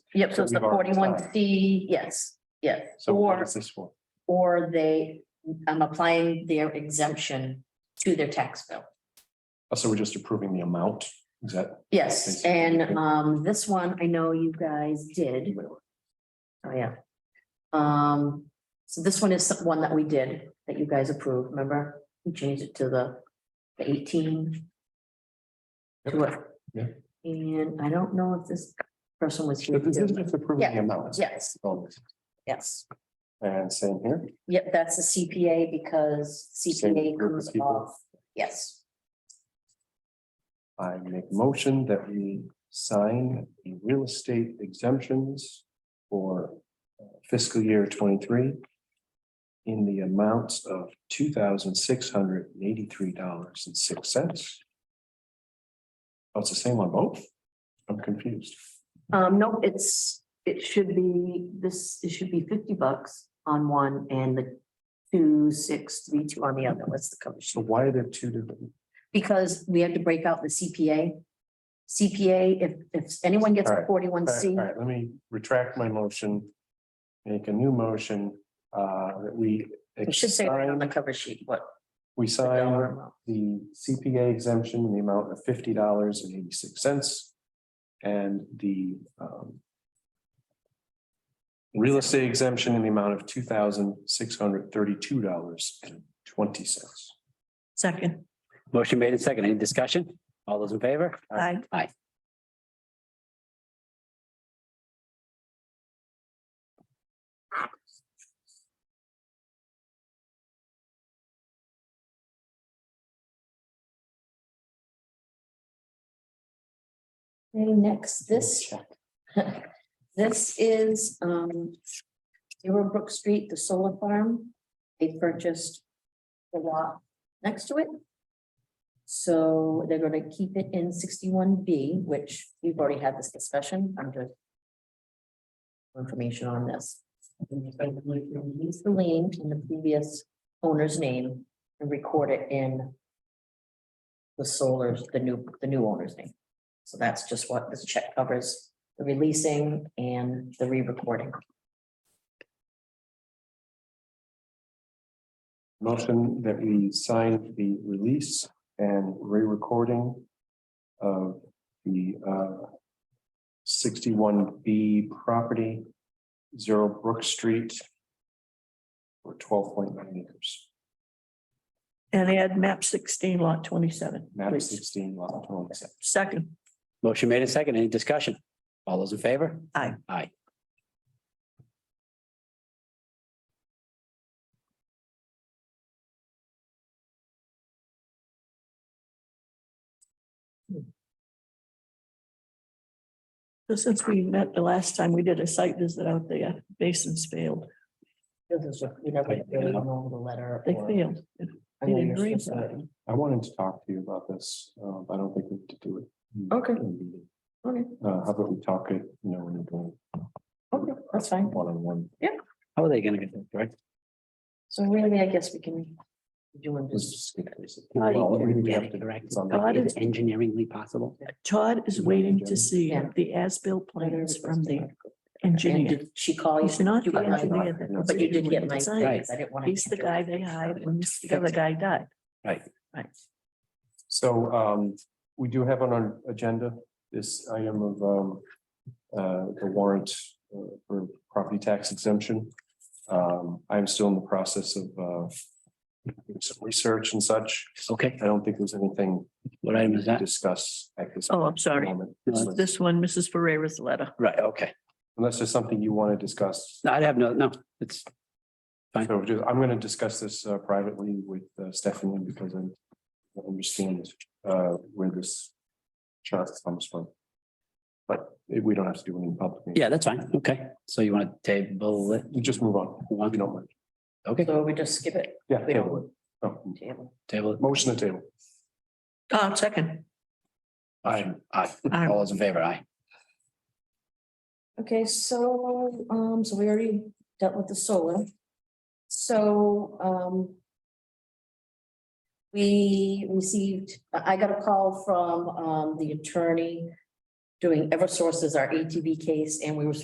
Yep, so it's the That we've already forty-one C, yes, yes. So what Or- is this for? or they, I'm applying their exemption to their tax bill. Oh, So we're just approving the amount, is that? Yes, and um, this one, I know you guys did. Oh, yeah. Um, so this one is some- one that we did, that you guys approved, remember? We changed it to the the eighteen. Yep. to it. Yeah. And I don't know if this person was here. But This is too. just approving the Yeah. amount. Yes, Oh, yes. And same here, Yep, that's the CPA because Same CPA group of comes people. off, yes. I make motion that we sign the real estate exemptions for uh, fiscal year twenty-three in the amounts of two thousand six hundred eighty-three dollars and six cents. Oh, it's the same on both? I'm confused. Um, no, it's, it should be, this, it should be fifty bucks on one and the two, six, three, two on the other, what's the cover So sheet? why are there two different? Because we have to break out the CPA. CPA, if, if anyone gets All a right, forty-one All right, C, all right, let me retract my motion. Make a new motion, uh, that we. we should say right on the sign- cover sheet, what. We the dollar sign amount. the CPA exemption in the amount of fifty dollars and eighty-six cents. And the, um. Real estate exemption in the amount of two thousand six hundred thirty-two dollars and twenty cents. Second. Motion made in second. Any discussion? All those in favor? Aye. Aye. Okay, next, this, this is, um, Zero Brook Street, the solar farm. They purchased the lot next to it. So they're gonna keep it in sixty-one B, which we've already had this discussion, I'm just information on this. Use the lien in the previous owner's name and record it in the solar, the new, the new owner's name. So that's just what this check covers, the releasing and the re-recording. Motion that we sign the release and re-recording of the uh, sixty-one B property, Zero Brook Street for twelve point nine acres, And add map sixteen lot twenty-seven. map please. sixteen, lot twenty-seven. Second. Motion made in second. Any discussion? All those in favor? Aye. Aye. So Since we met the last time, we did a site visit out there. Basins failed. This is what, you never Like, really yeah. know the letter. They or- failed. I know They you're didn't supposed to- I wanted to talk to you about this, uh, but I don't think we have to do it. Okay. in the meeting. Okay, Uh, How about we talk it, you know, when you're doing okay, that's fine. one-on-one, How are they gonna get that, right? So really, I guess we can do one let's just. just get this. Not Well, we even have to- correct. it's on the- Not as engineeringly possible. Todd is waiting to see Yeah. the as-built plans from the engineer. Did she call you? He's not You the got my- engineer. that was But you did doing get the my, site. Right. things. I didn't want to. He's the guy they hired when the other guy died. Right. Right. So um, we do have on our agenda this item of um. Uh, the warrant uh, for property tax exemption. Um, I'm still in the process of uh. doing Some research and such. Okay, I don't think there's anything what item is to that? discuss at this. Oh, I'm sorry. moment. It's This one, Mrs. Ferrera's letter. Right, okay. Unless there's something you want to discuss. No, I'd have no, no, it's, fine. So just- I'm going to discuss this uh, privately with uh, Stephanie because I'm- I understand uh, where this chart comes from. But it- we don't have to do it in public. meeting. yeah, that's fine. Okay, so you want to table it? You Just move on. if You don't mind. Okay, So we just skip it. Yeah. We table it. Oh, Table. table it. Motion to table. Oh, second. Aye, aye. Aye. All those in favor? Aye. Okay, so, um, so we already dealt with the solar. So, um. We received, I I got a call from, um, the attorney doing Eversource as our ATV case, and we were